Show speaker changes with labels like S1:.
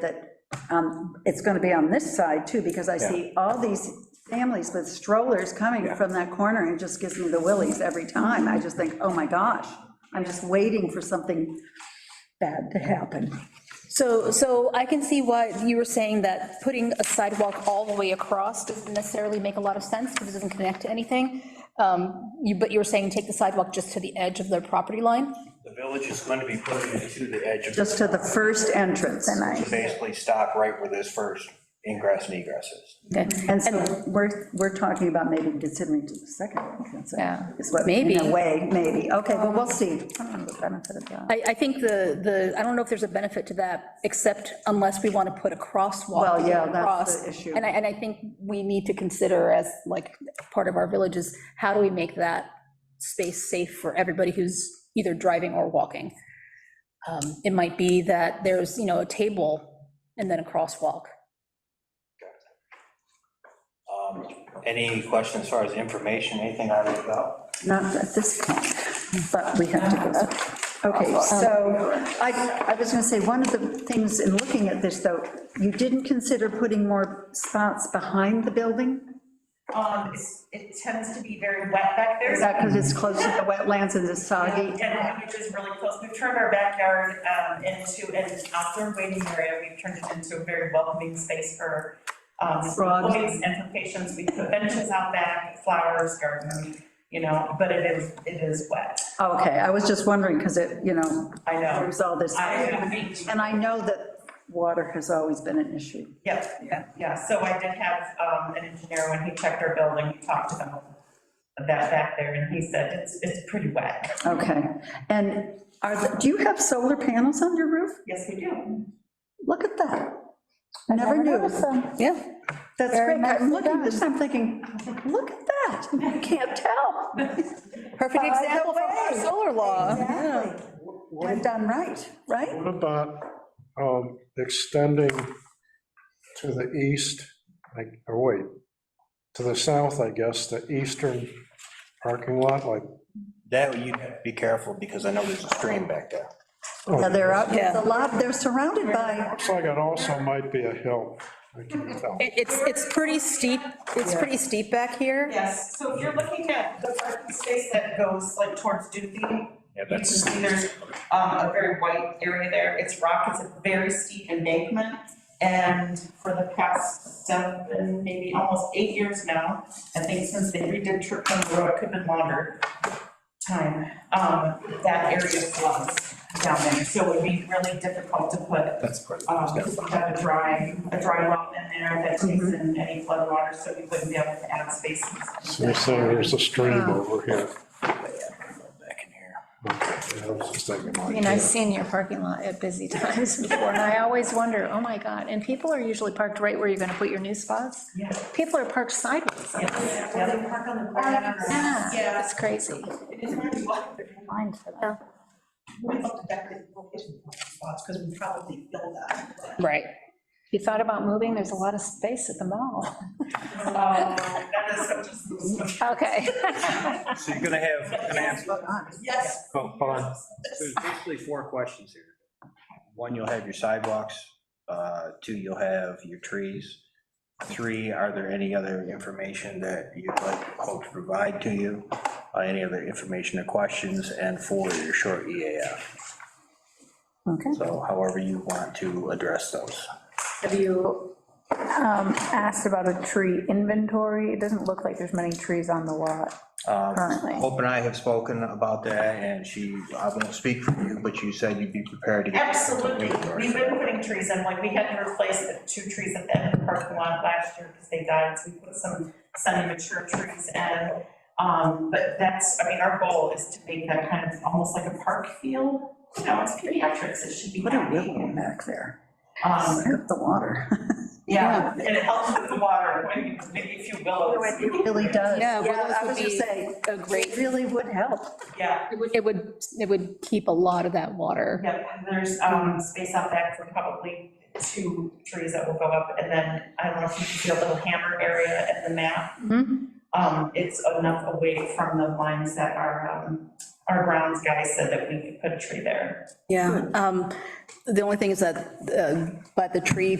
S1: that um, it's going to be on this side too, because I see all these families with strollers coming from that corner, and it just gives me the willies every time. I just think, oh my gosh, I'm just waiting for something bad to happen.
S2: So, so I can see why you were saying that putting a sidewalk all the way across doesn't necessarily make a lot of sense, because it doesn't connect to anything. Um, You, but you were saying take the sidewalk just to the edge of their property line?
S3: The village is going to be putting it to the edge of,
S1: Just to the first entrance.
S3: to basically stop right where this first ingress and egress is.
S2: Okay.
S1: And so we're, we're talking about maybe considering to the second entrance.
S2: Yeah.
S1: Is what,
S2: Maybe.
S1: in a way, maybe. Okay, well, we'll see.
S2: I, I think the, the, I don't know if there's a benefit to that, except unless we want to put a crosswalk.
S1: Well, yeah, that's the
S2: across.
S1: issue.
S2: And I, and I think we need to consider as, like, part of our villages, how do we make that space safe for everybody who's either driving or walking? Um, It might be that there's, you know, a table and then a crosswalk.
S3: Um, Any questions as far as information, anything on it about?
S1: Not at this point, but we have to go. through. Okay, so I, I was going to say, one of the things in looking at this, though, you didn't consider putting more spots behind the building?
S4: Um, it's- it tends to be very wet back there. Um,
S1: Is that because it's close to the wetlands and it's soggy?
S4: And which is really close. We've turned our backyard um, into an outdoor waiting area. We've turned it into a very welcoming space for um,
S1: Frogs.
S4: employees and for patients. We put benches out back, flowers, garden, you know, but it is, it is wet.
S1: Oh, Okay, I was just wondering, because it, you know,
S4: I know.
S1: there's all this.
S4: I,
S1: And I know that water has always been an issue.
S4: Yep, yeah, so I did have um, an engineer, when he checked our building, he talked about that back there, and he said, it's, it's pretty wet.
S1: Okay, and are, the- do you have solar panels on your roof?
S4: Yes, we do.
S1: Look at that. Never knew.
S2: Yeah.
S1: That's
S2: Very
S1: great. I'm
S2: nicely
S1: looking at this,
S2: done.
S1: I'm thinking, look at that. I can't tell.
S2: Perfect
S1: By the
S2: example from our
S1: way.
S2: solar law.
S1: Exactly. I've done right, right?
S5: What about um, extending to the east, like, or wait, to the south, I guess, the eastern parking lot, like?
S3: That, you have to be careful because I know there's a stream back there.
S5: oh,
S1: Yeah, they're out,
S2: Yeah.
S1: it's a lot, they're surrounded by,
S5: Looks like it also might be a hill. I can't tell.
S2: It- It's, it's pretty steep, it's pretty steep back here.
S4: Yes, so if you're looking at the parking space that goes like towards Doobie,
S3: Yeah,
S4: you can
S3: that's-
S4: see there's um, a very white area there, it's rock, it's a very steep embankment. And for the past seven, maybe almost eight years now, I think since they redid Churchill Road, it could have been longer time, um, that area floods down there, so it would be really difficult to put
S3: That's part of
S4: um, because we have a dry, a dry well in there that takes in any flood water, so we wouldn't be able to add spaces.
S5: So you're saying there's a stream
S6: Oh.
S5: over here.
S3: Back in here.
S5: Okay, I was just thinking
S6: I
S5: like,
S6: mean, I've
S5: yeah.
S6: seen your parking lot at busy times before, and I always wonder, oh my God, and people are usually parked right where you're gonna put your new spots?
S4: Yeah.
S6: People are parked sideways.
S4: Yeah, yeah, they park on the corner.
S6: Yeah,
S4: Yeah.
S6: it's crazy.
S4: It's really wild.
S6: Yeah.
S4: We looked at that in location spots, because we probably build that.
S2: Right.
S6: If you thought about moving, there's a lot of space at the mall.
S4: Um, That is such
S6: Okay.
S3: So you're gonna have, you're gonna have,
S4: a. Yes.
S3: oh, hold on. There's basically four questions here. One, you'll have your sidewalks. Uh, Two, you'll have your trees. Three, are there any other information that you'd like hope to provide to you? Uh, Any other information or questions? And four, your short EAF.
S1: Okay.
S3: So however you want to address those.
S7: Have you um, asked about a tree inventory? It doesn't look like there's many trees on the lot
S3: Um,
S7: currently.
S3: Hope and I have spoken about that, and she, I won't speak for you, but you said you'd be prepared to. get-
S4: Absolutely, we've been putting trees in, like, we had to replace the two trees at the end of the parking lot last year because they died, so we put some semi-mature trees in. Um, but that's, I mean, our goal is to make that kind of, almost like a park field, you know, it's pediatrics, it should be
S1: what a
S4: happy.
S1: ribbon back there.
S4: Um,
S1: Look at the water.
S4: yeah, and it helps with the water, when, maybe a few willows.
S1: It really does.
S2: Yeah, willows
S1: I
S2: would
S1: was just
S2: be
S1: saying,
S2: A great
S1: it really would help.
S4: Yeah,
S2: It would, it would, it would keep a lot of that water.
S4: yeah, there's, um, space out back for probably two trees that will go up, and then, I don't know if you can see a little hammer area at the map.
S6: Hmm?
S2: Mhm.
S4: um, it's enough away from the lines that are, um, our grounds guy said that we could put a tree there.
S2: Yeah, um, the only thing is that, uh, but the tree